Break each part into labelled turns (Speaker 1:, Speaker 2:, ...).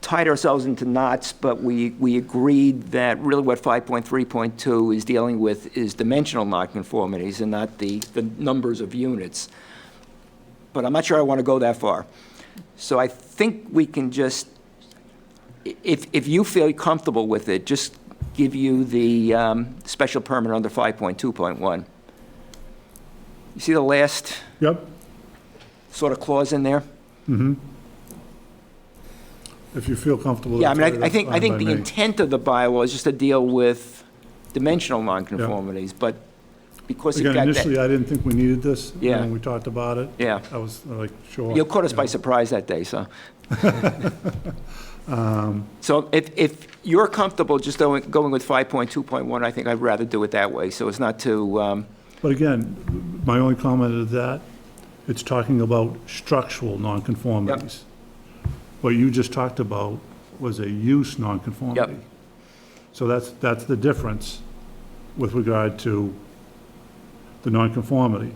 Speaker 1: tied ourselves into knots, but we, we agreed that really what 5.3.2 is dealing with is dimensional nonconformities and not the, the numbers of units. But I'm not sure I want to go that far. So I think we can just, i- if, if you feel comfortable with it, just give you the um, special permit under 5.2.1. You see the last
Speaker 2: Yep,
Speaker 1: sort of clause in there?
Speaker 2: if you feel comfortable.
Speaker 1: Yeah, I mean,
Speaker 2: that's-
Speaker 1: I- I think, I
Speaker 2: that's
Speaker 1: think
Speaker 2: fine
Speaker 1: the
Speaker 2: by me.
Speaker 1: intent of the bylaw is just to deal with dimensional nonconformities, but because it
Speaker 2: Again,
Speaker 1: got that,
Speaker 2: initially, I didn't think we needed this. and
Speaker 1: Yeah.
Speaker 2: When we talked about it.
Speaker 1: Yeah.
Speaker 2: I was like, sure.
Speaker 1: you caught us by
Speaker 2: yeah.
Speaker 1: surprise that day, so. Um, So if, if you're comfortable just going, going with 5.2.1, I think I'd rather do it that way, so it's not to, um,
Speaker 2: But again, my only comment is that it's talking about structural nonconformities. What you just talked about was a use nonconformity. So that's, that's the difference with regard to the nonconformity.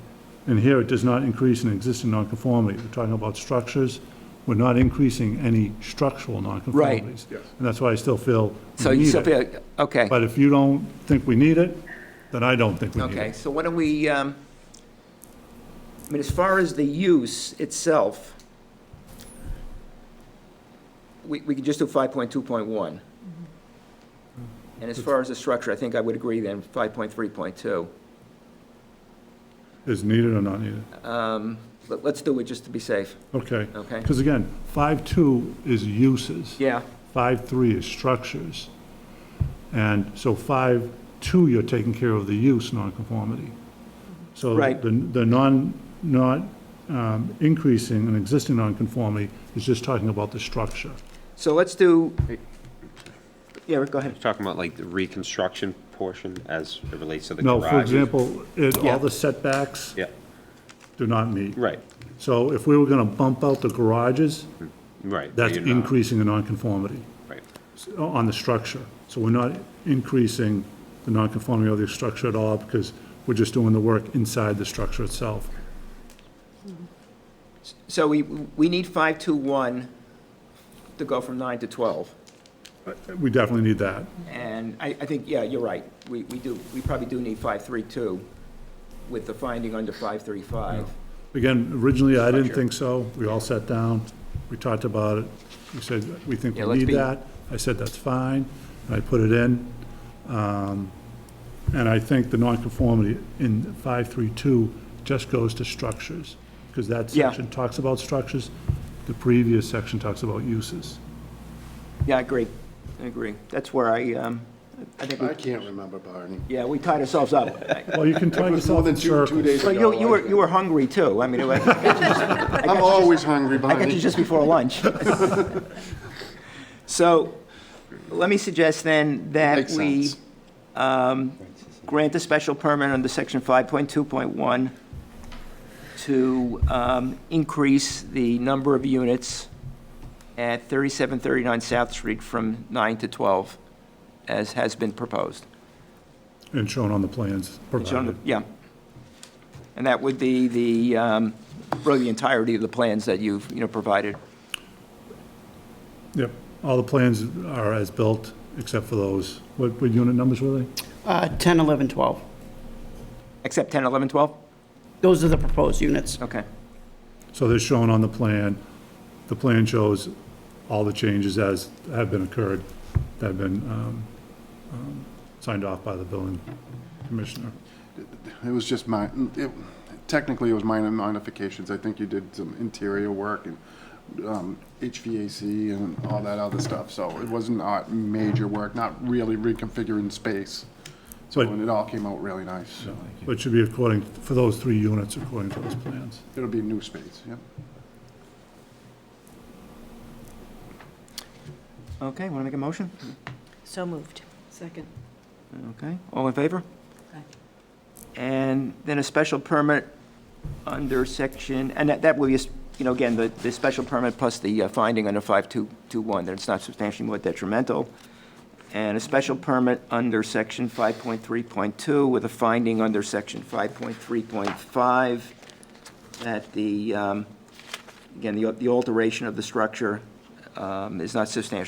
Speaker 2: And here, it does not increase an existing nonconformity. We're talking about structures. We're not increasing any structural nonconformities.
Speaker 3: Yes.
Speaker 2: And that's why I still feel
Speaker 1: so
Speaker 2: we
Speaker 1: you
Speaker 2: need
Speaker 1: still
Speaker 2: it.
Speaker 1: feel, okay,
Speaker 2: But if you don't think we need it, then I don't think we need it.
Speaker 1: okay, so why don't we, um, I mean, as far as the use itself, we, we could just do 5.2.1. And as far as the structure, I think I would agree then, 5.3.2.
Speaker 2: Is needed or not needed?
Speaker 1: Um, Let, let's do it just to be safe,
Speaker 2: Okay.
Speaker 1: okay?
Speaker 2: Because again, five-two is uses.
Speaker 1: Yeah,
Speaker 2: Five-three is structures. And so five-two, you're taking care of the use nonconformity. So
Speaker 1: Right.
Speaker 2: the, the non, not um, increasing an existing nonconformity is just talking about the structure.
Speaker 1: so let's do, yeah, Rick, go ahead.
Speaker 3: Talking about like the reconstruction portion as it relates to the
Speaker 2: No,
Speaker 3: garage.
Speaker 2: for example, it,
Speaker 1: Yeah.
Speaker 2: all the setbacks
Speaker 3: Yeah,
Speaker 2: do not meet.
Speaker 3: right,
Speaker 2: So if we were gonna bump out the garages,
Speaker 3: right. but
Speaker 2: that's
Speaker 3: Mm. you're not-
Speaker 2: increasing a nonconformity.
Speaker 3: Right,
Speaker 2: on the structure. So we're not increasing the nonconformity of the structure at all because we're just doing the work inside the structure itself.
Speaker 1: So we, we need 5.2.1 to go from 9 to 12.
Speaker 2: We definitely need that.
Speaker 1: And I, I think, yeah, you're right. We, we do, we probably do need 532 with the finding under 535.
Speaker 2: Again, originally, I didn't think so. We all sat down, we talked about it. We said, we think
Speaker 1: Yeah,
Speaker 2: we
Speaker 1: let's
Speaker 2: need
Speaker 1: be-
Speaker 2: that. I said, that's fine, and I put it in. Um, And I think the nonconformity in 532 just goes to structures, because that
Speaker 1: Yeah.
Speaker 2: section talks about structures. The previous section talks about uses.
Speaker 1: Yeah, I agree. I agree. That's where I, um, I think, we-
Speaker 4: I can't remember, Barney.
Speaker 1: yeah, we tied ourselves up.
Speaker 2: Well, you can tie
Speaker 4: It was more
Speaker 2: yourself
Speaker 4: than
Speaker 2: in
Speaker 4: two, two
Speaker 2: circles.
Speaker 4: days
Speaker 1: Well, you,
Speaker 4: ago.
Speaker 1: you were, you were hungry too. I mean, it was-
Speaker 4: I'm always hungry,
Speaker 1: I got you
Speaker 4: Barney.
Speaker 1: just before lunch. So, let me suggest then that
Speaker 4: Makes
Speaker 1: we
Speaker 4: sense.
Speaker 1: um, grant a special permit under section 5.2.1 to um, increase the number of units at 3739 South Street from 9 to 12, as has been proposed.
Speaker 2: And shown on the plans
Speaker 1: It's on the-
Speaker 2: provided.
Speaker 1: Yeah. And that would be the, um, really the entirety of the plans that you've, you know, provided.
Speaker 2: Yep, all the plans are as built, except for those, what, what unit numbers were they?
Speaker 5: Uh, 10, 11, 12.
Speaker 1: Except 10, 11, 12?
Speaker 5: Those are the proposed units.
Speaker 1: Okay.
Speaker 2: So they're shown on the plan. The plan shows all the changes as have been occurred, that have been, um, um, signed off by the building commissioner.
Speaker 4: It was just my, it- technically, it was minor modifications. I think you did some interior work and um, HVAC and all that other stuff, so it was not major work, not really reconfiguring space. So
Speaker 2: But-
Speaker 4: and it all came out really nice.
Speaker 2: But it should be according, for those three units, according to those plans.
Speaker 4: It'll be new space, yep.
Speaker 1: Okay, want to make a motion?
Speaker 6: So moved. Second.
Speaker 1: Okay, all in favor?
Speaker 6: Aye.
Speaker 1: And then a special permit under section, and that, that will be, you know, again, the, the special permit plus the uh, finding under 5221, that it's not substantially more detrimental, and a special permit under section 5.3.2 with a finding under section 5.3.5 that the, um, again, the the alteration of the structure um, is not substantially